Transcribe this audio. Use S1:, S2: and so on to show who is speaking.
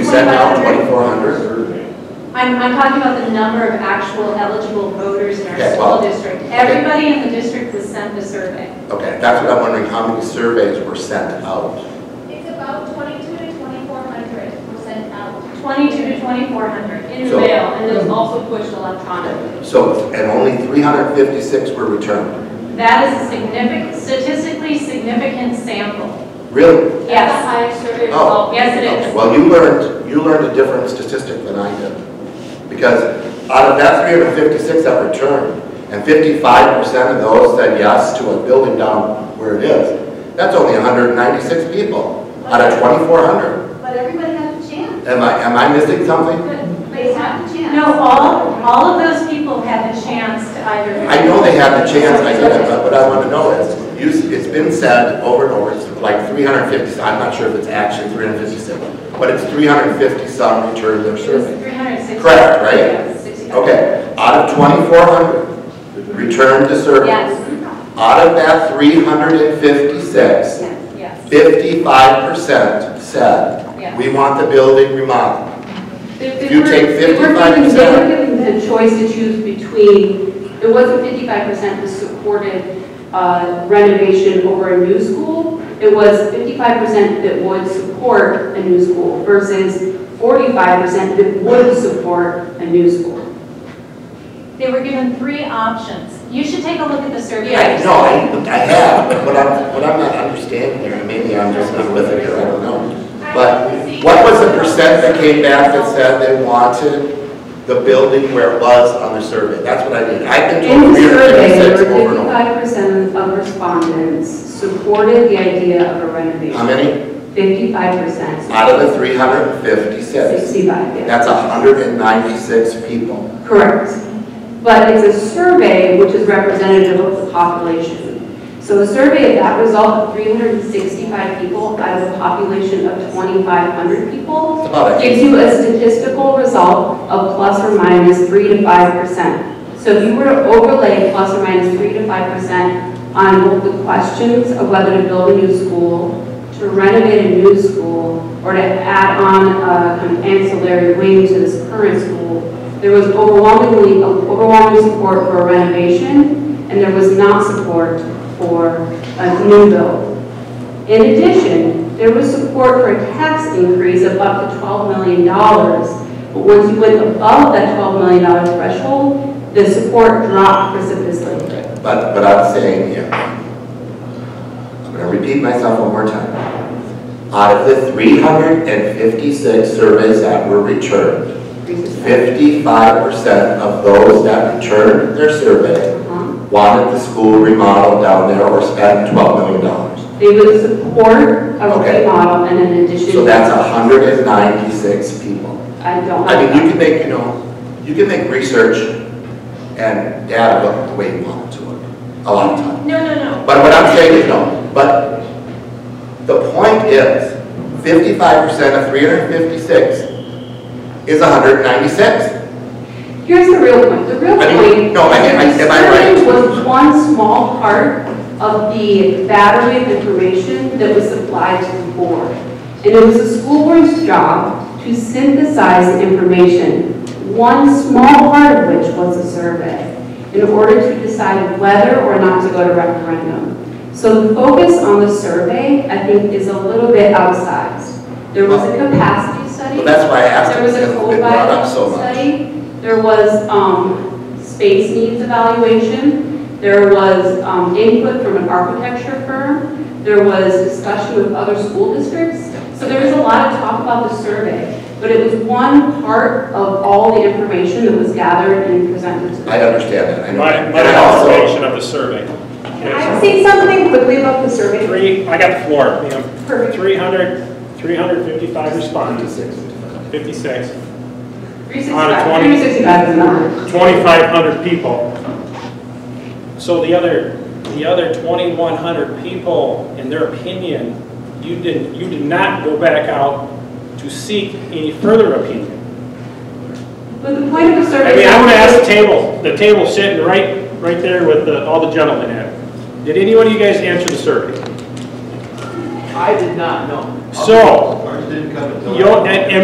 S1: send out twenty-four hundred?
S2: I'm, I'm talking about the number of actual eligible voters in our
S1: Okay, well-
S2: school district. Everybody in the district was sent the survey.
S1: Okay, that's what I'm wondering, how many surveys were sent out?
S3: It's about twenty-two to twenty-four hundred percent out.
S2: 22 to 2,400 in the
S1: So-
S2: mail, and it was also pushed electronically.
S1: So, and only three hundred fifty-six were returned.
S2: That is a significant, statistically significant sample.
S1: Really?
S2: Yes,
S4: highest survey
S1: Oh.
S4: result.
S2: yes, it
S1: Okay,
S2: is.
S1: Well, you learned, you learned a different statistic than I did. Because out of that three hundred fifty-six that returned, and fifty-five percent of those said yes to a building down where it is, that's only hundred and ninety-six people out of twenty-four hundred.
S3: But everybody has a chance.
S1: Am I, am I missing something?
S3: They have a chance.
S2: No, all, all of those people had the chance to either.
S1: I know they have the chance, I get it, but what I want to know is, you, it's been said over and over, it's like 350, I'm not sure if it's actually 356, but it's 350 some returned their
S2: It was
S1: survey.
S2: 360.
S1: Correct, right?
S2: Yeah, 60.
S1: Okay, out of 2,400 returned the survey,
S2: Yes,
S1: out of that 356,
S2: yes, yes.
S1: 55%
S2: Yeah.
S1: said, we want the building remodeled.
S5: They- they
S1: If you
S5: were-
S1: take
S5: they were given-
S1: 55%.
S5: They were given the choice to choose between, it wasn't fifty-five percent that supported uh, renovation over a new school. It was fifty-five percent that would support a new school versus forty-five percent that would support a new school.
S2: They were given three options. You should take a look at the survey.
S1: Yeah, no, I, I have, but what I'm, what I'm not understanding here, maybe I'm just not with it here, I don't know. But what was the percent that came back that said they wanted the building where it was on the survey? That's what I need. I've been
S5: In
S1: told
S5: the
S1: three hundred
S5: survey, there
S1: fifty-six over
S5: were
S1: and over.
S5: fifty-five percent of respondents supported the idea of a
S1: How
S5: renovation.
S1: many?
S5: Fifty-five percent.
S1: Out of the three hundred and fifty-six.
S5: Sixty-five, yeah.
S1: That's hundred and ninety-six people.
S5: Correct. But it's a survey which is representative of the population. So a survey of that result of 365 people out of a population of 2,500 people
S1: That's about it.
S5: gives you a statistical result of plus or minus 3 to 5%. So if you were to overlay plus or minus 3 to 5% on both the questions of whether to build a new school, to renovate a new school, or to add on a kind of ancillary wing to this current school, there was overwhelmingly, overwhelming support for a renovation, and there was not support for a new build. In addition, there was support for a tax increase of up to $12 million. But once you went above that $12 million threshold, the support dropped precipitously.
S1: But, but I'm saying here, I'm gonna repeat myself one more time. Out of the three hundred and fifty-six surveys that were returned, Fifty-five percent of those that returned their survey
S5: Uh-huh.
S1: wanted the school remodeled down there or spend twelve million dollars.
S5: They would support a
S1: Okay.
S5: remodel and an addition.
S1: So that's hundred and ninety-six people.
S5: I don't
S1: I mean, you
S5: have
S1: can make, you know, you can make research and data look the way you want it to look, a lot of times.
S2: No, no, no.
S1: But what I'm saying is no, but the point is, fifty-five percent of three hundred and fifty-six is hundred and ninety-six.
S5: that. Here's the real point, the real
S1: I
S5: point.
S1: mean, no, I- I-
S5: is
S1: am I
S5: survey
S1: right?
S5: was one small part of the battery of information that was supplied to the board. And it was the school board's job to synthesize the information, one small part of which was a survey, in order to decide whether or not to go to referendum. So the focus on the survey, I think, is a little bit outsized. There was a capacity study.
S1: Well, that's why I asked.
S5: There was
S1: because
S5: a
S1: it's
S5: code
S1: been brought up so
S5: violation
S1: much.
S5: study, there was, um, space needs evaluation, there was, um, input from an architecture firm, there was discussion with other school districts, so there was a lot of talk about the survey, but it was one part of all the information that was gathered and presented to the.
S1: I understand that, I know.
S6: My,
S1: that.
S6: my
S1: And I also,
S6: observation of the survey.
S7: I say something quickly about the survey.
S6: Three, I got the floor, ma'am.
S7: Perfect.
S6: 300, 355 respondents, 56,
S5: 365
S6: On a 20.
S5: 365 is not.
S6: 2,500 people. So the other, the other 2,100 people, in their opinion, you didn't, you did not go back out to seek any further opinion.
S5: But the point of a survey.
S6: I mean, I would ask the table, the table sitting right, right there with the, all the gentlemen at. it. Did any one of you guys answer the survey?
S8: I did not know.
S6: So,
S9: Ours didn't come until.
S6: you, and, and